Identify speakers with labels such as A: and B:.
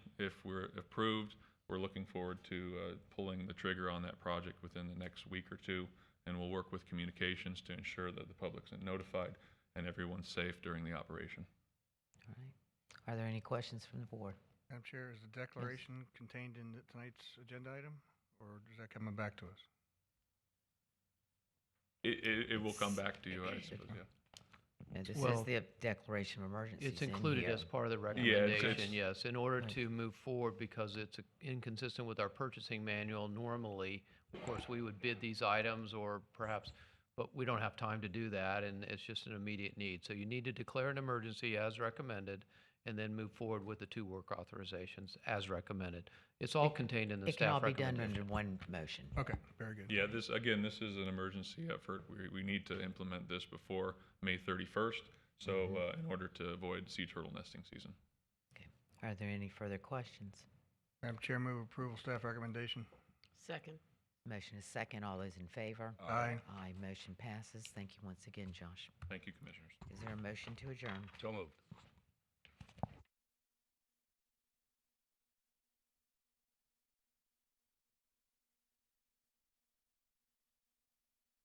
A: if we're approved, we're looking forward to uh, pulling the trigger on that project within the next week or two, and we'll work with communications to ensure that the public's notified and everyone's safe during the operation.
B: All right. Are there any questions from the board?
C: Madam Chair, is the declaration contained in the- tonight's agenda item, or is that coming back to us?
A: It, it, it will come back to you, I suppose, yeah.
B: And this
D: Well,
B: is the declaration of emergency. uh,
D: It's included as part of the
A: Yeah, it's-
D: recommendation, yes, in order
B: Right.
D: to move forward because it's uh, inconsistent with our purchasing manual. Normally, of course, we would bid these items or perhaps, but we don't have time to do that and it's just an immediate need. So you need to declare an emergency as recommended and then move forward with the two work authorizations as recommended. It's all contained in the
B: It can all
D: staff
B: be done under
D: recommendation.
B: one motion.
C: Okay, very good.
A: Yeah, this, again, this is an emergency effort. We, we need to implement this before May 31st, so, uh, in order to avoid sea turtle nesting season.
B: Okay. Are there any further questions?
C: Madam Chair, move approval, staff recommendation.
E: Second.
B: Motion is second. All those in favor?
C: Aye.
B: Aye. Motion passes. Thank you once again, Josh.
A: Thank you, Commissioners.
B: Is there a motion to adjourn?
F: So moved.